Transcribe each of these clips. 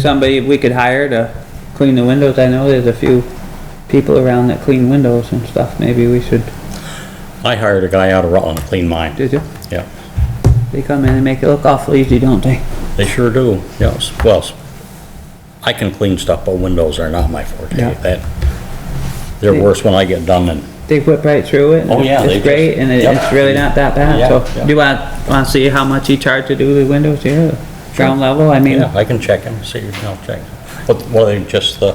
somebody we could hire to clean the windows. I know there's a few people around that clean windows and stuff. Maybe we should, I hired a guy out of Rutland to clean mine. did you? Yeah, They come in and make it look awful easy, don't they? they sure do, yes. Well, s- I can clean stuff, but windows are not my forte. Yeah. That, they're worse when I get done than, They whip right through it. and Oh, yeah, it's- they It's just- great and it- Yep. it's really not that bad. Yeah, So yeah. do you want, want to see how much he charged to do the windows here? the Ground level? I mean, yeah, I can check them, see, I'll check. What, what are they, just uh,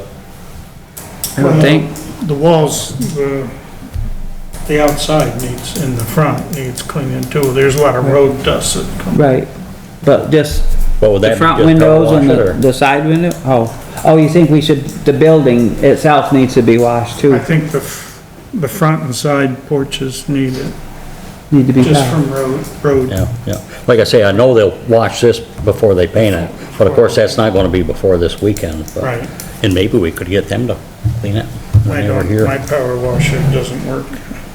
the, I would think, The walls, the, the outside needs, in the front needs cleaning too. There's a lot of road dust that comes. right. But just what would that the be? front just double windows and wash it, the, or- the side window? Oh, oh, you think we should, the building itself needs to be washed I too? think the, f- the front and side porches need it, Need to be just washed. from road, road. Yeah, yeah. Like I say, I know they'll wash this before they paint it, but of course, that's not gonna be before this weekend. but- Right. And maybe we could get them to clean it I when they were don't, my here. power washer doesn't work,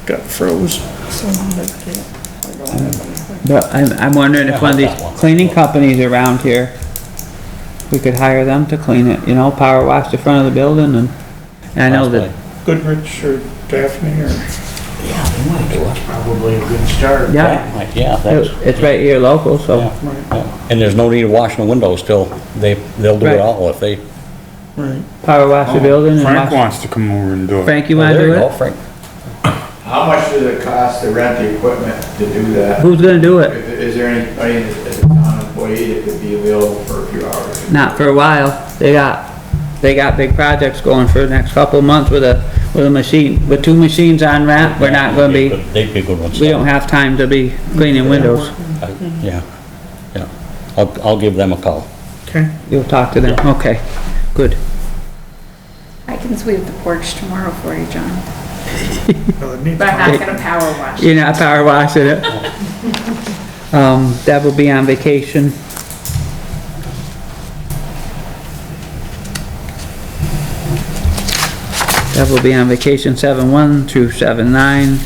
got froze. So I can't- I don't have it. But I'm, I'm wondering if one of these cleaning companies around here, we could hire them to clean it, you know, power wash the front of the building and, and I know that, Goodrich or Daphne or, That's probably a good start. yeah, Yeah, that's, it- it's right here local, so. yeah, yeah. And there's no need of washing the windows till they, they'll do Right. it all if they. right, Power wash the building and Frank wash. wants to come over and do it. Frank, you Well, wanna Oh, there do you go, it? Frank. How much does it cost to rent the equipment to do that? Who's gonna do it? If- Is there anybody as a town employee that could be available for a few hours? Not for a while. They got, they got big projects going for the next couple of months with a, with a machine, with two machines on ramp, we're not gonna be, They'd be good ones. we don't have time to be cleaning windows. I- Yeah, yeah. I'll, I'll give them a call. okay? You'll talk to them, okay, good. I can sweep the porch tomorrow for you, John, Well, it needs- but I'm not gonna power wash. You're not power washing it. Um, Deb will be on vacation. Deb will be on vacation seven-one through seven-nine.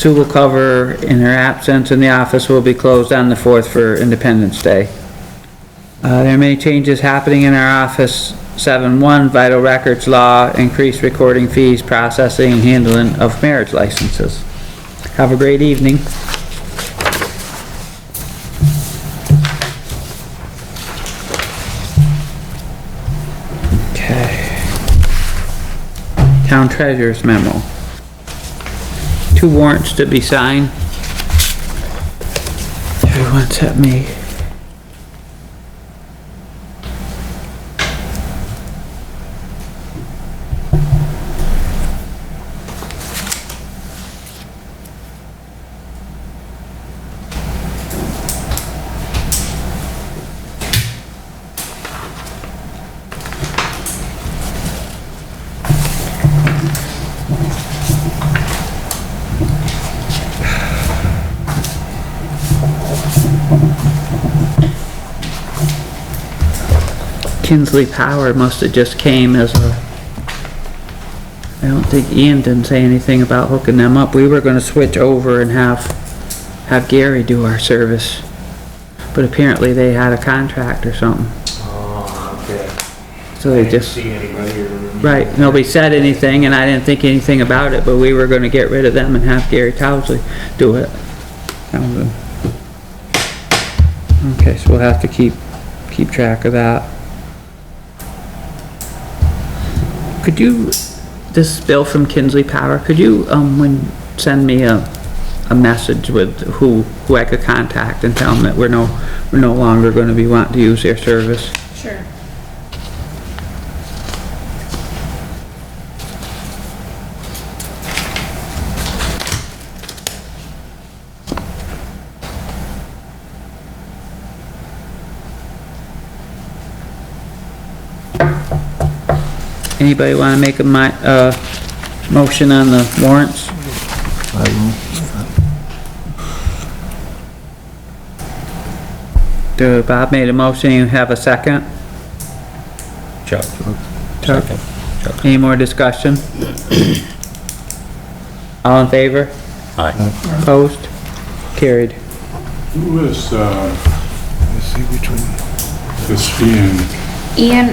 Sue will cover in her absence and the office will be closed on the fourth for Independence Day. Uh, there are many changes happening in our office. Seven-one, vital records law, increased recording fees, processing and handling of marriage licenses. Have a great evening. Okay. Town treasurer's memo. Two warrants to be signed. Everyone's at me. Kinsley Power must have just came as a, I don't think Ian didn't say anything about hooking them up. We were gonna switch over and have, have Gary do our service. But apparently they had a contract or something, Oh, okay. so they just, see anybody or. right, nobody said anything and I didn't think anything about it, but we were gonna get rid of them and have Gary Towsley do it. That was a- Okay, so we'll have to keep, keep track of that. Could you, this bill from Kinsley Power, could you, um, when, send me a, a message with who, who I could contact and tell them that we're no, we're no longer gonna be wanting to use their service? Sure. Anybody wanna make a mi- uh, motion on the warrants? Do, Bob made a motion, you have a second? Chuck. Chuck. Second. Any more discussion? All in favor? Aye. Opposed? Carried. Who is, uh, this fee and Ian